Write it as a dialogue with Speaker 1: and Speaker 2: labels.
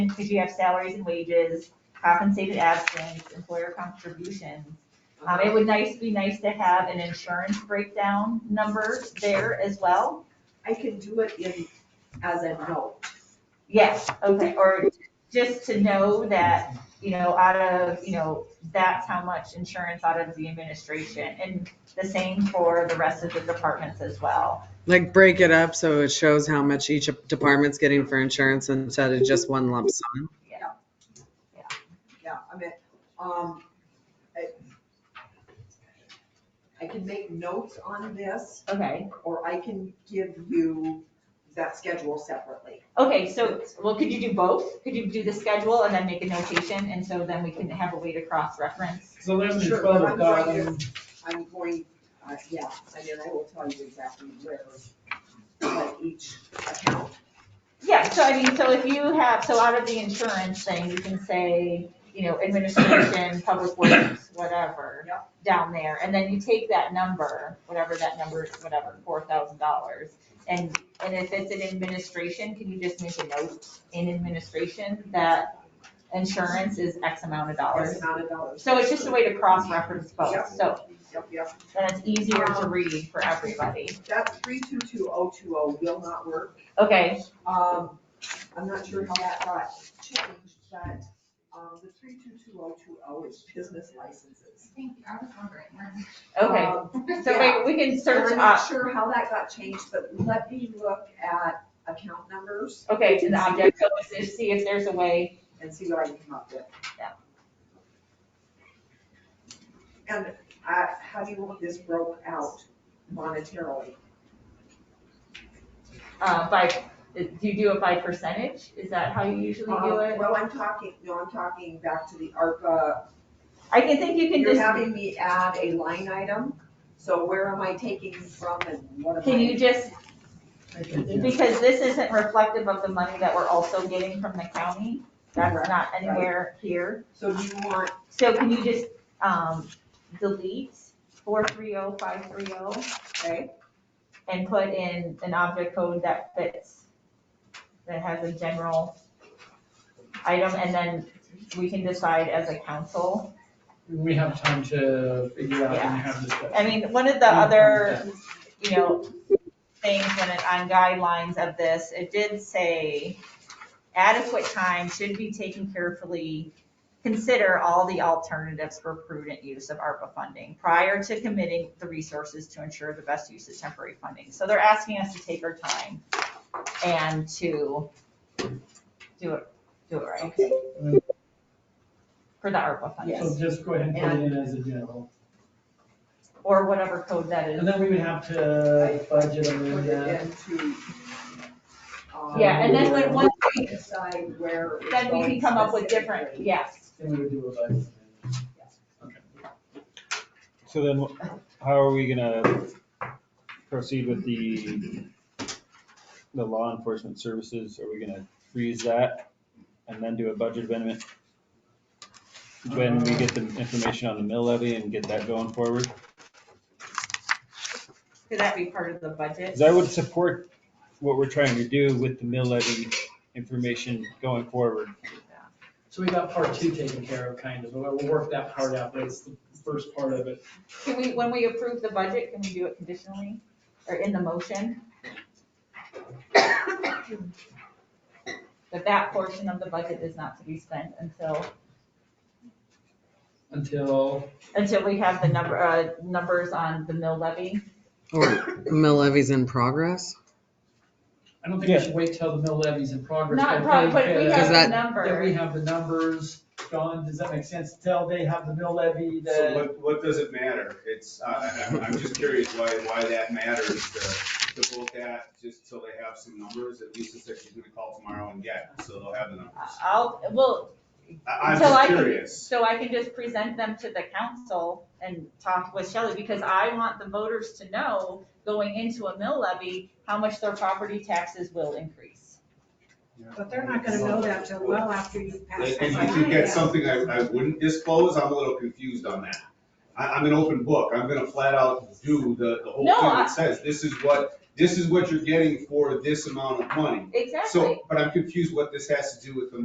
Speaker 1: because you have salaries and wages, compensated absence, employer contributions. Um, it would nice, be nice to have an insurance breakdown number there as well.
Speaker 2: I can do it in, as a note.
Speaker 1: Yes, okay, or just to know that, you know, out of, you know, that's how much insurance out of the administration. And the same for the rest of the departments as well.
Speaker 3: Like break it up so it shows how much each department's getting for insurance instead of just one lump sum.
Speaker 2: Yeah, I mean, um, I, I can make notes on this,
Speaker 1: Okay.
Speaker 2: or I can give you that schedule separately.
Speaker 1: Okay, so, well, could you do both? Could you do the schedule and then make a notation? And so then we can have a way to cross-reference?
Speaker 4: So eleven and
Speaker 2: Sure,
Speaker 4: twelve
Speaker 2: but I'm
Speaker 4: are
Speaker 2: going
Speaker 4: dotted.
Speaker 2: I'm going, uh, yeah, I mean, I will tell you exactly where, what each account.
Speaker 1: Yeah, so I mean, so if you have, so out of the insurance thing, you can say, you know, administration, public works, whatever, down there. And then you take that number, whatever that number, is, whatever, four thousand dollars. And, and if it's in administration, can you just make a note in administration that insurance is X amount of
Speaker 2: X
Speaker 1: dollars?
Speaker 2: amount of dollars.
Speaker 1: So it's just a way to cross-reference both, so
Speaker 2: Yep, yep.
Speaker 1: then it's easier to read for everybody.
Speaker 2: That three two two oh two oh will not work.
Speaker 1: Okay,
Speaker 2: Um, I'm not sure how that got changed, but, um, the three two two oh two oh is business licenses.
Speaker 5: Thank you, I was wondering.
Speaker 1: okay,
Speaker 2: Um,
Speaker 1: so uh,
Speaker 2: yeah.
Speaker 1: we, we can
Speaker 2: And
Speaker 1: search
Speaker 2: I'm
Speaker 1: up,
Speaker 2: not sure how that got changed, but let me look at account numbers
Speaker 1: okay, to the object, so let's just see if there's a way,
Speaker 2: and see what I can come up with.
Speaker 1: Yeah.
Speaker 2: And, uh, how do you want this broke out monetarily?
Speaker 1: uh, by, do you do it by percentage? Is that how you usually do
Speaker 2: Um,
Speaker 1: it?
Speaker 4: Uh-huh.
Speaker 2: Well, I'm talking, no, I'm talking back to the ARPA
Speaker 1: I can think you can
Speaker 2: You're
Speaker 1: just,
Speaker 2: having me add a line item, so where am I taking from and what am I?
Speaker 1: can you just,
Speaker 4: I can do it.
Speaker 1: because this isn't reflective of the money that we're also getting from the county, that's
Speaker 2: Correct,
Speaker 1: not anywhere here.
Speaker 2: So do you want,
Speaker 1: So can you just, um, delete four three oh, five three oh, right? And put in an object code that fits, that has a general item, and then we can decide as a council.
Speaker 4: We have time to figure out and have this.
Speaker 1: I mean, one of the other, you know, things when it, on guidelines of this, it did say adequate time should be taken carefully, consider all the alternatives for prudent use of ARPA funding prior to committing the resources to ensure the best use of temporary funding. So they're asking us to take our time and to do it, do it right for the ARPA
Speaker 4: So
Speaker 1: funding,
Speaker 4: just go ahead and put it in as a general.
Speaker 1: or whatever code that is.
Speaker 4: And then we would have to budget
Speaker 2: put it
Speaker 4: amend that.
Speaker 2: into? um,
Speaker 1: Yeah, and then when, once we
Speaker 2: Decide where. it's
Speaker 1: then we
Speaker 2: going
Speaker 1: can come up with different,
Speaker 2: specifically.
Speaker 1: yes.
Speaker 4: Then we would do a budget. amendment. Okay.
Speaker 6: So then, how are we gonna proceed with the, the law enforcement services? Are we gonna freeze that and then do a budget amendment? When we get the information on the mill levy and get that going forward?
Speaker 1: Could that be part of the budget?
Speaker 6: Because I would support what we're trying to do with the mill levy information going forward.
Speaker 4: So we got part two taken care of, kind of, we'll we'll work that part out, but it's the first part of it.
Speaker 1: Can we, when we approve the budget, can we do it conditionally or in the motion? But that portion of the budget is not to be spent until,
Speaker 4: Until,
Speaker 1: until we have the number, uh, numbers on the mill levy.
Speaker 3: Or mill levies in progress?
Speaker 4: I don't think we should wait till the mill levy's in progress.
Speaker 1: Not probably, but we
Speaker 3: Because
Speaker 1: have the
Speaker 3: that-
Speaker 4: Then we
Speaker 1: number.
Speaker 4: have the numbers, John, does that make sense? Till they have the mill levy,
Speaker 7: So
Speaker 4: the,
Speaker 7: what, what does it matter? It's, I, I'm, I'm just curious why, why that matters to, to vote that just till they have some numbers. At least it's that she's gonna call tomorrow and get, so they'll have the numbers.
Speaker 1: I'll, well,
Speaker 7: I, I'm
Speaker 1: Until I
Speaker 7: just
Speaker 1: can-
Speaker 7: curious.
Speaker 1: so I can just present them to the council and talk with Shelley because I want the voters to know going into a mill levy, how much their property taxes will increase.
Speaker 8: But they're not gonna know that till well after you pass.
Speaker 7: If
Speaker 8: the
Speaker 7: if you
Speaker 8: line.
Speaker 7: get something I, I wouldn't disclose, I'm a little confused on that. I, I'm an open book. I'm gonna flat out do the, the whole
Speaker 1: No,
Speaker 7: thing
Speaker 1: I-
Speaker 7: that says, this is what, this is what you're getting for this amount of money.
Speaker 1: Exactly.
Speaker 7: So, but I'm confused what this has to do with the